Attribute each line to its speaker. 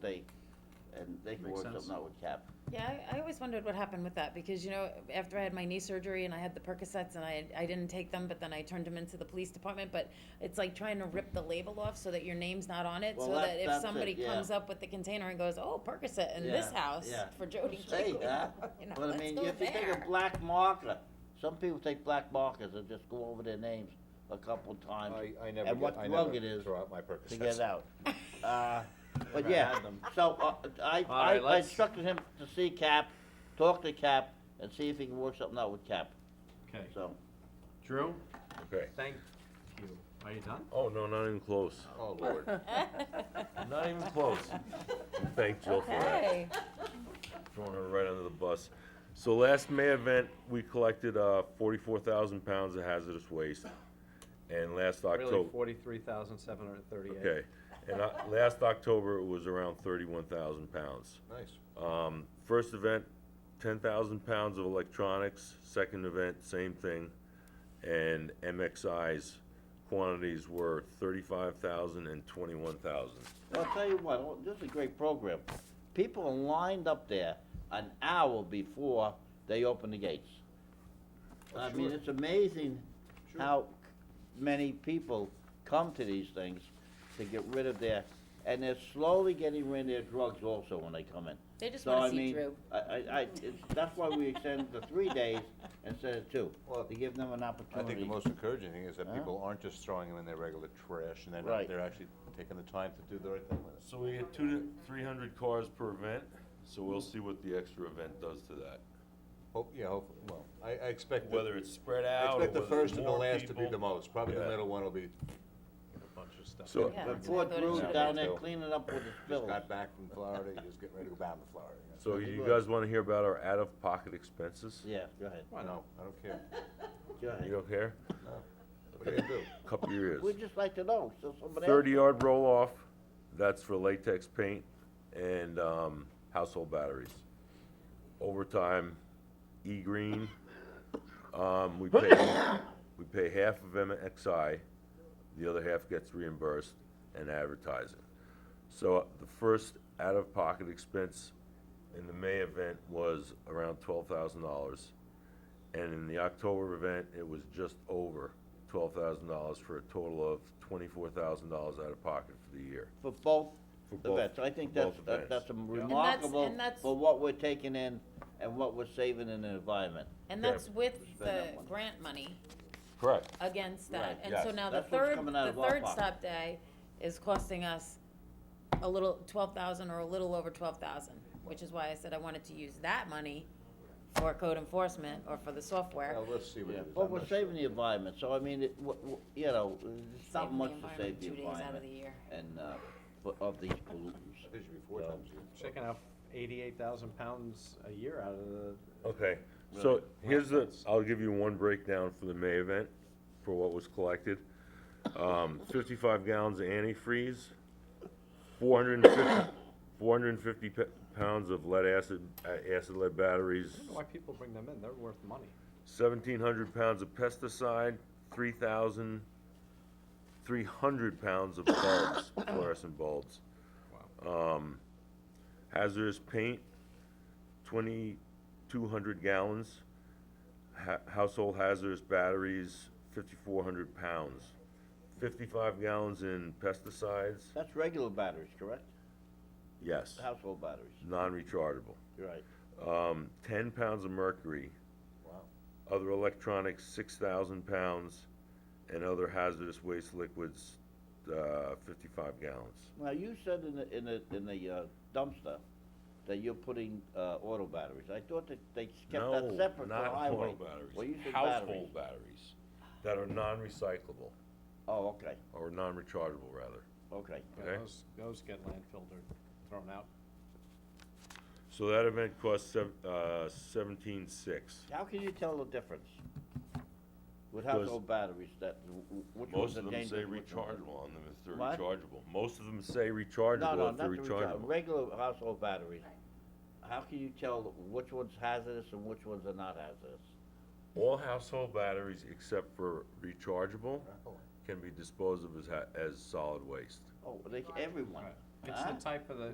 Speaker 1: they, and they can
Speaker 2: Makes
Speaker 1: work
Speaker 2: sense.
Speaker 1: something out with Cap.
Speaker 3: Yeah, I, I always wondered what happened with that, because, you know, after I had my knee surgery and I had the Percocets and I, I didn't take them, but then I turned them into the police department, but it's like trying to rip the label off so that your name's not on it, so
Speaker 1: Well, that-
Speaker 3: that
Speaker 1: that's
Speaker 3: if
Speaker 1: it,
Speaker 3: somebody
Speaker 1: yeah.
Speaker 3: comes up with the container and goes, oh, Percocet in this
Speaker 1: Yeah,
Speaker 3: house
Speaker 1: yeah.
Speaker 3: for Jody
Speaker 1: Say
Speaker 3: King.
Speaker 1: that,
Speaker 3: you know,
Speaker 1: But I
Speaker 3: let's
Speaker 1: mean,
Speaker 3: go
Speaker 1: if you take a
Speaker 3: there.
Speaker 1: black marker, some people take black markers and just go over their names a couple times
Speaker 4: I, I never,
Speaker 1: And
Speaker 4: get-
Speaker 1: what
Speaker 4: I
Speaker 1: drug
Speaker 4: never
Speaker 1: it is
Speaker 4: throw out my
Speaker 1: to
Speaker 4: Percocets.
Speaker 1: get out. Uh, But
Speaker 2: Never
Speaker 1: yeah,
Speaker 2: had them.
Speaker 1: so uh, I, I
Speaker 2: All right,
Speaker 1: I
Speaker 2: let's-
Speaker 1: instructed him to see Cap, talk to Cap, and see if he can work something out with Cap,
Speaker 2: Okay,
Speaker 1: so.
Speaker 2: Drew,
Speaker 5: Okay.
Speaker 2: thank you. Are you done?
Speaker 5: Oh, no, not even close.
Speaker 4: Oh, Lord.
Speaker 5: Not even close. Thank Jill for that,
Speaker 3: Okay,
Speaker 5: throwing her right under the bus. So last May event, we collected, uh, forty-four thousand pounds of hazardous waste. And last
Speaker 2: Really,
Speaker 5: October,
Speaker 2: forty-three thousand seven hundred thirty-eight.
Speaker 5: okay, and I, last October, it was around thirty-one thousand pounds.
Speaker 4: Nice.
Speaker 5: Um, first event, ten thousand pounds of electronics, second event, same thing. And MXI's quantities were thirty-five thousand and twenty-one thousand.
Speaker 1: I'll tell you what, oh, this is a great program. People are lined up there an hour before they open the gates. I mean, it's amazing how many people come to these things to get rid of their, and they're slowly getting rid of their drugs also when they come in.
Speaker 3: they just
Speaker 1: So I
Speaker 3: wanna see
Speaker 1: mean,
Speaker 3: Drew.
Speaker 1: I, I, I, it's, that's why we extend the three days instead of two, to give them an
Speaker 4: I think
Speaker 1: opportunity.
Speaker 4: the most encouraging thing is that
Speaker 1: Huh?
Speaker 4: people aren't just throwing them in their regular trash, and they're,
Speaker 1: Right.
Speaker 4: not- they're actually taking the time to do the right thing with it.
Speaker 5: So we get two to three hundred cars per event, so we'll see what the extra event does to that.
Speaker 4: Hope, yeah, hopefully, well, I, I expect, the-
Speaker 5: Whether it's spread
Speaker 4: I
Speaker 5: out or
Speaker 4: expect the
Speaker 5: whether it's
Speaker 4: first and the
Speaker 5: more
Speaker 4: last to be
Speaker 5: people.
Speaker 4: the most, probably the
Speaker 5: Yeah.
Speaker 4: middle one will
Speaker 2: A
Speaker 4: be,
Speaker 2: bunch of stuff.
Speaker 5: So,
Speaker 3: Yeah.
Speaker 1: But poor
Speaker 3: Uh, Go to
Speaker 1: Drew's
Speaker 3: Joe.
Speaker 1: down there cleaning up with his
Speaker 4: just
Speaker 1: bills.
Speaker 4: got back from Florida, you just getting ready to go back to Florida. you know.
Speaker 5: so you guys wanna hear about our out-of-pocket expenses?
Speaker 1: Yeah, go ahead,
Speaker 4: Why not? I don't care.
Speaker 1: go ahead.
Speaker 5: You don't care?
Speaker 4: What do you do?
Speaker 5: Cup your ears.
Speaker 1: We'd just like to know, so somebody else.
Speaker 5: Thirty-yard roll-off, that's for latex paint and, um, household batteries. Overtime, E-green, um, we pay, we pay half of MXI, the other half gets reimbursed, and advertising. So the first out-of-pocket expense in the May event was around twelve thousand dollars. And in the October event, it was just over twelve thousand dollars for a total of twenty-four thousand dollars out of pocket for the year.
Speaker 1: for both
Speaker 5: For both-
Speaker 1: events. I think
Speaker 5: for
Speaker 1: that's,
Speaker 5: both
Speaker 1: that-
Speaker 5: events.
Speaker 1: that's a
Speaker 5: that's-
Speaker 1: remarkable
Speaker 3: and that's-
Speaker 1: for what we're taking in and what we're saving in the environment.
Speaker 3: And
Speaker 5: Yeah.
Speaker 3: that's with the
Speaker 1: that one.
Speaker 3: grant money
Speaker 5: Correct.
Speaker 3: against
Speaker 1: Right,
Speaker 3: that, and so
Speaker 5: yes.
Speaker 3: now the
Speaker 1: That's what's
Speaker 3: third,
Speaker 1: coming out
Speaker 3: the
Speaker 1: of our
Speaker 3: third
Speaker 1: pocket.
Speaker 3: stop day is costing us a little, twelve thousand or a little over twelve thousand, which is why I said I wanted to use that money for code enforcement or for the software.
Speaker 4: Well, let's see what it is.
Speaker 1: But
Speaker 4: I'm
Speaker 1: we're
Speaker 4: not sure.
Speaker 1: saving the environment, so I mean, it, w- w- you know, it's not
Speaker 3: Saving the
Speaker 1: much to
Speaker 3: environment
Speaker 1: save the
Speaker 3: Two days out of the
Speaker 1: environment
Speaker 3: year.
Speaker 1: and, uh, for- of these pollutants.
Speaker 4: It should be four
Speaker 1: So-
Speaker 4: times a year.
Speaker 2: Checking out eighty-eight thousand pounds a year out of the,
Speaker 5: Okay, so here's the, I'll give you one breakdown for the May event, for what was collected. Um, fifty-five gallons of antifreeze, four hundred and fifty, four hundred and fifty pounds of lead acid, uh, acid lead batteries,
Speaker 2: I don't know why people bring them in, they're worth money.
Speaker 5: seventeen hundred pounds of pesticide, three thousand, three hundred pounds of bulbs, fluorescent bulbs. Um, hazardous paint, twenty-two hundred gallons. Ha- household hazardous batteries, fifty-four hundred pounds. Fifty-five gallons in pesticides,
Speaker 1: That's regular batteries, correct?
Speaker 5: yes,
Speaker 1: Household batteries,
Speaker 5: non-rechargeable.
Speaker 1: You're right.
Speaker 5: Um, ten pounds of mercury,
Speaker 4: Wow.
Speaker 5: other electronics, six thousand pounds, and other hazardous waste liquids, uh, fifty-five gallons.
Speaker 1: Now, you said in the, in the, in the uh, dumpster that you're putting, uh, auto batteries. I thought that they kept that
Speaker 5: No,
Speaker 1: separate for
Speaker 5: not
Speaker 1: highway.
Speaker 5: auto
Speaker 1: Well, you
Speaker 5: batteries,
Speaker 1: said batteries.
Speaker 5: household batteries that are non-recyclable,
Speaker 1: Oh, okay,
Speaker 5: or non-rechargeable rather.
Speaker 1: okay.
Speaker 2: Yeah,
Speaker 5: Okay.
Speaker 2: Those, those get landfilled or thrown out.
Speaker 5: So that event cost sev- uh, seventeen-six.
Speaker 1: How can you tell the difference? With
Speaker 5: Because-
Speaker 1: household batteries, that, w- w- which
Speaker 5: Most
Speaker 1: one's a
Speaker 5: of them
Speaker 1: dangerous?
Speaker 5: say
Speaker 1: which one?
Speaker 5: rechargeable on them if they're
Speaker 1: What?
Speaker 5: rechargeable. Most of them
Speaker 1: No,
Speaker 5: say
Speaker 1: no,
Speaker 5: rechargeable if
Speaker 1: not
Speaker 5: they're
Speaker 1: the rechargeable,
Speaker 5: rechargeable.
Speaker 1: regular household batteries. How can you tell which one's hazardous and which ones are not hazardous?
Speaker 5: All household batteries except for rechargeable can be disposed of as ha- as solid waste.
Speaker 1: Oh, they, everyone,
Speaker 2: It's
Speaker 1: Huh?
Speaker 2: the type of the,